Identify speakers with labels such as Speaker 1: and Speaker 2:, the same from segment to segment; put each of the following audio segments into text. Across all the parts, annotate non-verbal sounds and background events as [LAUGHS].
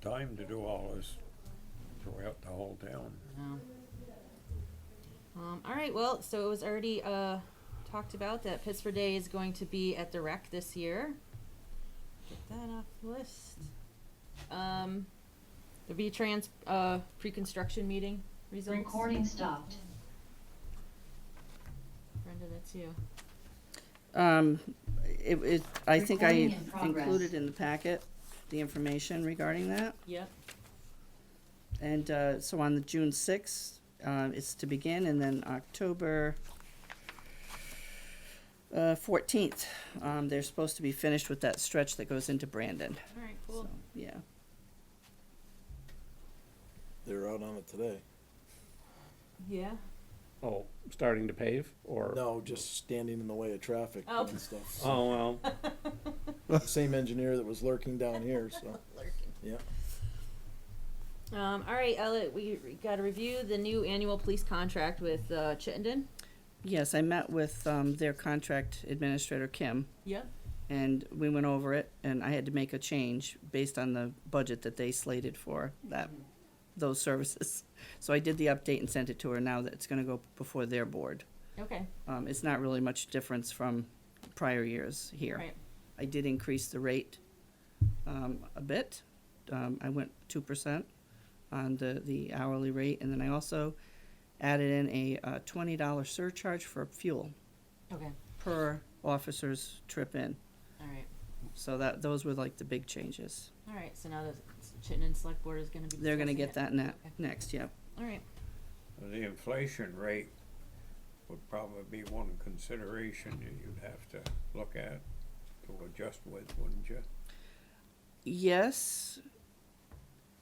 Speaker 1: time to do all this throughout the whole town.
Speaker 2: No. Um, all right. Well, so it was already uh, talked about that Pittsburgh Day is going to be at the rec this year. Get that off the list. Um, the V Trans uh, pre-construction meeting results.
Speaker 3: Recording stopped.
Speaker 2: Brenda, that's you.
Speaker 4: Um, it, it, I think I
Speaker 3: Recording in progress.
Speaker 4: included in the packet the information regarding that.
Speaker 2: Yep.
Speaker 4: And, uh, so on the June sixth, uh, it's to begin, and then October uh, fourteenth, um, they're supposed to be finished with that stretch that goes into Brandon,
Speaker 2: All right. Cool.
Speaker 4: so, yeah.
Speaker 5: They were out on it today.
Speaker 2: Yeah.
Speaker 6: Oh, starting to pave or?
Speaker 5: No, just standing in the way of traffic
Speaker 2: Oh.
Speaker 5: and stuff. So,
Speaker 6: Oh, well,
Speaker 5: the Same engineer that was lurking down here, so,
Speaker 7: [LAUGHS]
Speaker 5: yeah.
Speaker 2: Um, all right, Elliot. We got to review the new annual police contract with uh, Chittenden.
Speaker 4: Yes, I met with, um, their contract administrator, Kim,
Speaker 2: Yep.
Speaker 4: and we went over it, and I had to make a change based on the budget that they slated for that, those services. So I did the update and sent it to her now that it's gonna go before their board.
Speaker 2: Okay.
Speaker 4: Um, it's not really much difference from prior years here.
Speaker 2: Right.
Speaker 4: I did increase the rate, um, a bit. Um, I went two percent on the, the hourly rate, and then I also added in a, uh, twenty dollar surcharge for fuel
Speaker 2: Okay.
Speaker 4: per officer's trip in.
Speaker 2: All right.
Speaker 4: So that, those were like the big changes.
Speaker 2: All right, so now the Chittenden Select Board is gonna be.
Speaker 4: They're gonna
Speaker 2: discussing
Speaker 4: get
Speaker 2: it.
Speaker 4: that net,
Speaker 2: Okay.
Speaker 4: next, yeah.
Speaker 2: All right,
Speaker 1: The inflation rate would probably be one consideration that you'd have to look at to adjust with, wouldn't you?
Speaker 4: Yes,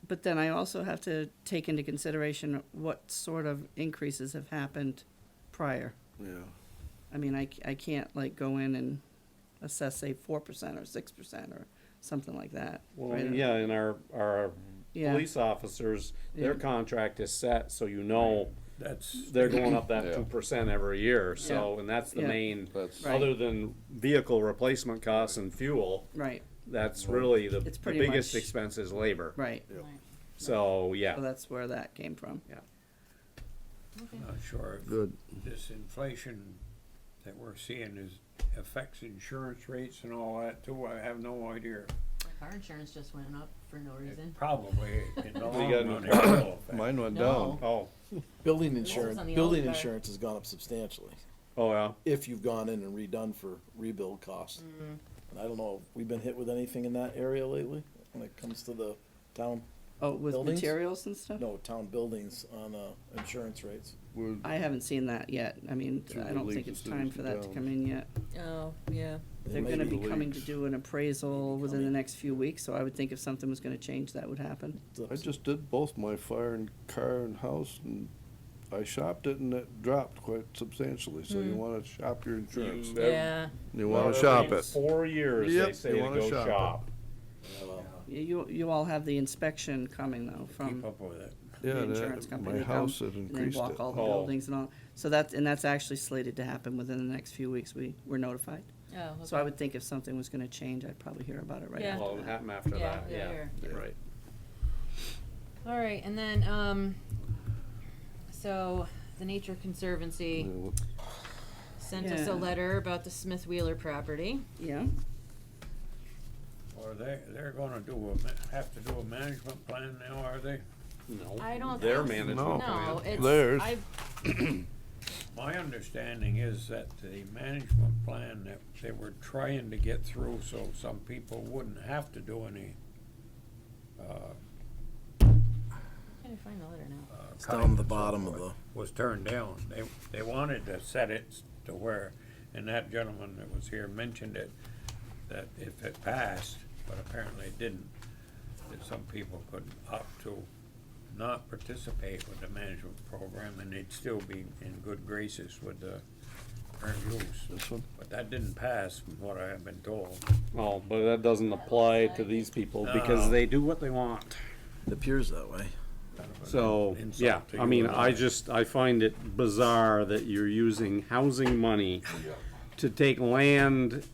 Speaker 4: but then I also have to take into consideration what sort of increases have happened prior.
Speaker 5: Yeah.
Speaker 4: I mean, I, c- I can't like go in and assess, say, four percent or six percent or something like that.
Speaker 6: well,
Speaker 4: right?
Speaker 6: yeah, and our, our
Speaker 4: Yeah.
Speaker 6: police officers, their
Speaker 4: Yeah.
Speaker 6: contract is set, so you know
Speaker 1: That's,
Speaker 6: they're going up that
Speaker 7: Yeah.
Speaker 6: two percent every year, so, and that's the
Speaker 4: Yeah.
Speaker 6: main,
Speaker 7: That's-
Speaker 4: Right.
Speaker 6: other than vehicle replacement costs and fuel,
Speaker 4: Right,
Speaker 6: that's really the
Speaker 4: It's
Speaker 6: the
Speaker 4: pretty
Speaker 6: biggest
Speaker 4: much-
Speaker 6: expense is labor.
Speaker 4: right.
Speaker 5: Yeah.
Speaker 2: Right.
Speaker 6: So,
Speaker 4: So
Speaker 6: yeah,
Speaker 4: that's where that came from.
Speaker 6: yeah.
Speaker 2: okay,
Speaker 1: not sure if
Speaker 7: Good.
Speaker 1: this inflation that we're seeing is, affects insurance rates and all that too, I have no idea.
Speaker 2: Like, our insurance just went up for no reason.
Speaker 1: Probably in the long
Speaker 6: got-
Speaker 1: run. it will affect.
Speaker 7: Mine went
Speaker 2: No.
Speaker 7: down.
Speaker 6: Oh,
Speaker 5: Building
Speaker 2: was
Speaker 5: insurance,
Speaker 2: on the
Speaker 5: building
Speaker 2: old car.
Speaker 5: insurance has gone up substantially,
Speaker 6: oh, yeah.
Speaker 5: if you've gone in and redone for rebuild costs.
Speaker 2: Mm-hmm.
Speaker 5: And I don't know, we've been hit with anything in that area lately, when it comes to the town,
Speaker 4: Oh, with
Speaker 5: Buildings?
Speaker 4: materials and stuff?
Speaker 5: no, town buildings on, uh, insurance rates.
Speaker 7: Would-
Speaker 4: I haven't seen that yet. I mean,
Speaker 7: Through
Speaker 4: I
Speaker 7: the
Speaker 4: don't
Speaker 7: leagues
Speaker 4: think
Speaker 7: of
Speaker 4: it's time
Speaker 7: cities
Speaker 4: for
Speaker 7: and
Speaker 4: that to
Speaker 7: towns.
Speaker 4: come in yet.
Speaker 2: Oh, yeah.
Speaker 5: It
Speaker 4: They're
Speaker 5: may
Speaker 4: gonna
Speaker 5: be-
Speaker 4: be coming to
Speaker 7: leaks.
Speaker 4: do an appraisal within the
Speaker 5: coming.
Speaker 4: next few weeks, so I would think if something was gonna change, that would happen.
Speaker 7: I just did both my fire and car and house and I shopped it and it dropped quite substantially, so you wanna shop your insurance.
Speaker 6: That-
Speaker 7: You
Speaker 6: Well,
Speaker 7: wanna
Speaker 6: every
Speaker 7: shop it.
Speaker 6: Four years, they
Speaker 7: Yep,
Speaker 6: say
Speaker 7: you
Speaker 6: to
Speaker 7: wanna
Speaker 6: go
Speaker 7: shop it.
Speaker 6: shop.
Speaker 5: Yeah, well,
Speaker 4: You- You, you all have the inspection coming though
Speaker 1: Keep
Speaker 4: from
Speaker 1: up with it.
Speaker 4: the
Speaker 7: Yeah,
Speaker 4: insurance
Speaker 7: that,
Speaker 4: company.
Speaker 7: my
Speaker 4: They come
Speaker 7: house had
Speaker 4: and they
Speaker 7: increased
Speaker 4: walk
Speaker 7: it.
Speaker 4: all the
Speaker 6: Oh.
Speaker 4: buildings and all. So that's, and that's actually slated to happen within the next few weeks. We were notified.
Speaker 2: Oh,
Speaker 4: So I would think if something was gonna change, I'd probably hear about it right
Speaker 2: Yeah.
Speaker 6: Well,
Speaker 4: after
Speaker 6: it
Speaker 4: that.
Speaker 6: happened after
Speaker 2: Yeah,
Speaker 6: that,
Speaker 2: yeah,
Speaker 6: yeah, right.
Speaker 2: All right, and then, um, so the Nature Conservancy
Speaker 6: Mm.
Speaker 7: Yeah,
Speaker 2: sent us
Speaker 4: Yeah.
Speaker 2: a letter about the Smith Wheeler property.
Speaker 4: Yeah,
Speaker 1: Or they, they're gonna do a, ma- have to do a management plan now, are they?
Speaker 6: No.
Speaker 2: I don't
Speaker 6: Oh, Their
Speaker 2: think-
Speaker 6: management plan.
Speaker 2: No, it's,
Speaker 7: Theirs.
Speaker 2: I,
Speaker 1: My understanding is that the management plan that they were trying to get through so some people wouldn't have to do any, uh,
Speaker 2: can I find the letter now?
Speaker 1: uh,
Speaker 5: It's
Speaker 1: cutting
Speaker 5: down the
Speaker 1: and so
Speaker 5: bottom of
Speaker 1: forth,
Speaker 5: the,
Speaker 1: Was turned down. They, they wanted to set it s- to where, and that gentleman that was here mentioned it, that if it passed, but apparently it didn't, that some people could opt to not participate with the management program and they'd still be in good graces with the current use.
Speaker 7: This one?
Speaker 1: But that didn't pass, from what I have been told.
Speaker 6: Oh, but that doesn't apply to these people
Speaker 7: Uh,
Speaker 6: because
Speaker 1: No.
Speaker 6: they do what they want.
Speaker 5: it appears that way.
Speaker 6: So,
Speaker 1: Insult
Speaker 6: yeah,
Speaker 1: to
Speaker 6: I
Speaker 1: you
Speaker 6: mean,
Speaker 1: and
Speaker 6: I
Speaker 1: all.
Speaker 6: just, I find it bizarre that you're using housing money to take land